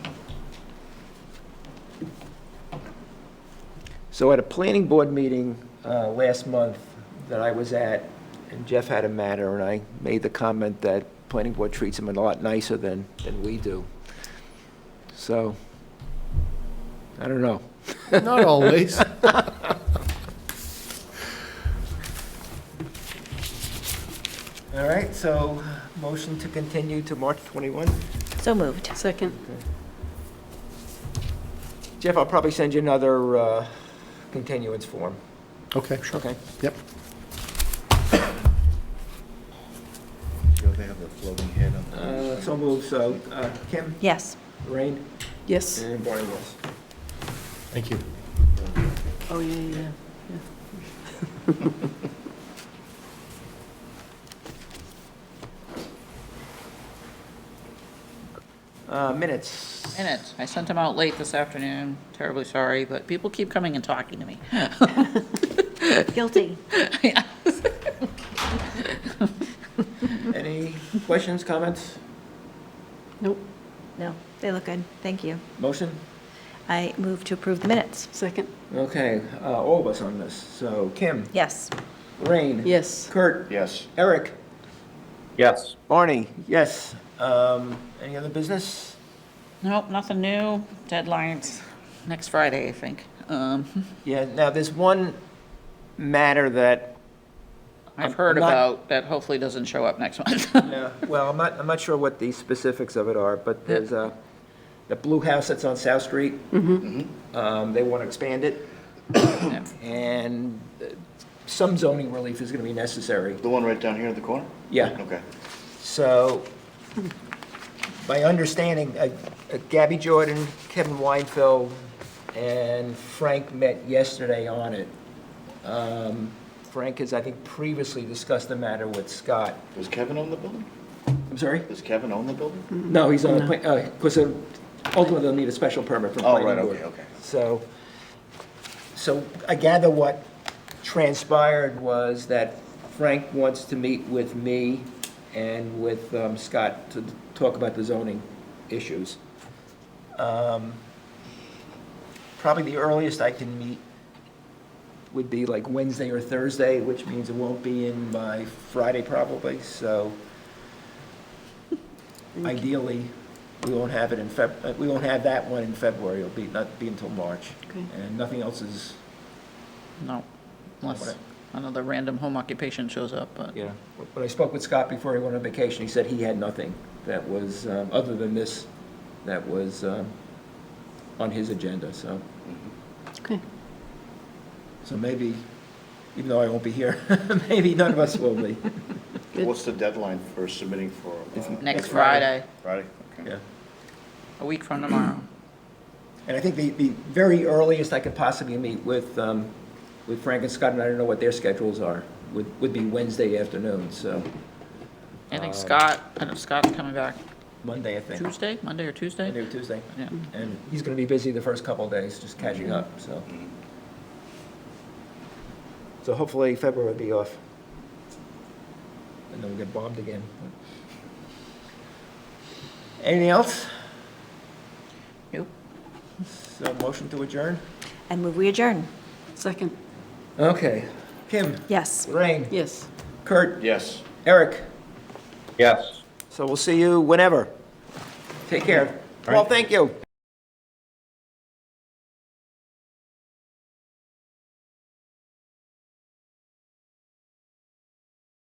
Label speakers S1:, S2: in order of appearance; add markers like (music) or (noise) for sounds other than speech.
S1: So at a planning board meeting uh, last month that I was at, and Jeff had a matter, and I made the comment that planning board treats him a lot nicer than, than we do. So, I don't know.
S2: Not always.
S1: All right, so motion to continue to March 21?
S3: So moved.
S4: Second.
S1: Jeff, I'll probably send you another uh, continuance form,
S2: (laughs) Okay, sure.
S1: okay?
S2: Yep.
S5: You know, they have the floating head on the.
S1: Uh, So moved, so uh, Kim,
S3: Yes.
S1: Lorraine,
S4: Yes.
S1: and Barney Wells.
S2: Thank you.
S4: Oh, yeah, yeah, yeah.
S1: Uh, Minutes.
S6: Minutes. I sent them out late this afternoon. Terribly sorry, but people keep coming and talking to me.
S3: (laughs) Guilty.
S1: Any questions, comments,
S4: Nope.
S3: No, they look good. Thank you.
S1: motion?
S3: I move to approve the minutes.
S4: Second.
S1: Okay, uh, all of us on this. So Kim,
S3: Yes.
S1: Lorraine.
S4: Yes.
S1: Kurt,
S5: Yes.
S1: Eric,
S5: Yes.
S1: Barney, yes. Um, Any other business?
S6: Nope, nothing new. Deadlines next Friday, I think. Um, (laughs)
S1: Yeah, now there's one matter that,
S6: I've heard
S1: I'm not-
S6: about that hopefully doesn't show up next month. (laughs)
S1: uh, well, I'm not, I'm not sure what the specifics of it are, but there's a, the blue house that's on South Street. Um, They want to expand it, and uh, some zoning relief is going to be necessary.
S5: The one right down here in the corner?
S1: Yeah.
S5: Okay.
S1: So, my understanding, uh, uh, Gabby Jordan, Kevin Weinfeld, and Frank met yesterday on it. Um, Frank has, I think, previously discussed the matter with Scott.
S5: Does Kevin own the building?
S1: I'm sorry?
S5: Does Kevin own the
S6: Mm,
S5: building?
S1: No, he's uh, on, because ultimately they'll need a special permit from
S5: Oh,
S1: planning
S5: right,
S1: board.
S5: okay, okay.
S1: So, so I gather what transpired was that Frank wants to meet with me and with um, Scott to talk about the zoning issues. Um, Probably the earliest I can meet would be like Wednesday or Thursday, which means it won't be in by Friday probably, so ideally, we won't have it in Feb, uh, we won't have that one in February, it'll be, not be until March.
S4: Okay.
S1: And nothing else is,
S6: No, unless another random home occupation shows up, but
S1: you know, when I spoke with Scott before he went on vacation, he said he had nothing that was, um, other than this, that was um, on his agenda, so,
S4: Okay.
S1: so maybe, even though I won't be here, (laughs) maybe none of us will be,
S4: Good.
S5: What's the deadline for submitting for? uh,
S6: next
S1: Friday.
S6: Friday,
S5: Friday? Okay.
S1: yeah.
S6: a week from tomorrow.
S1: And I think the, the very earliest I could possibly meet with, um, with Frank and Scott, and I don't know what their schedules are, would, would be Wednesday afternoon, so,
S6: I
S1: Um,
S6: think Scott, I know Scott's coming back
S1: Monday, I think.
S6: Tuesday, Monday or Tuesday?
S1: Monday or Tuesday.
S6: Yeah.
S1: And he's gonna be busy the first couple of days, just catching up, so. So hopefully February will be off. And then we'll get bombed again. Anything else?
S6: Nope.
S1: So motion to adjourn?
S3: I move we adjourn.
S4: Second.
S1: Okay. Kim,
S3: Yes.
S1: Lorraine,
S4: Yes.
S1: Kurt,
S5: Yes.
S1: Eric.
S5: Yes.
S1: So we'll see you whenever. Take care. Well, thank you.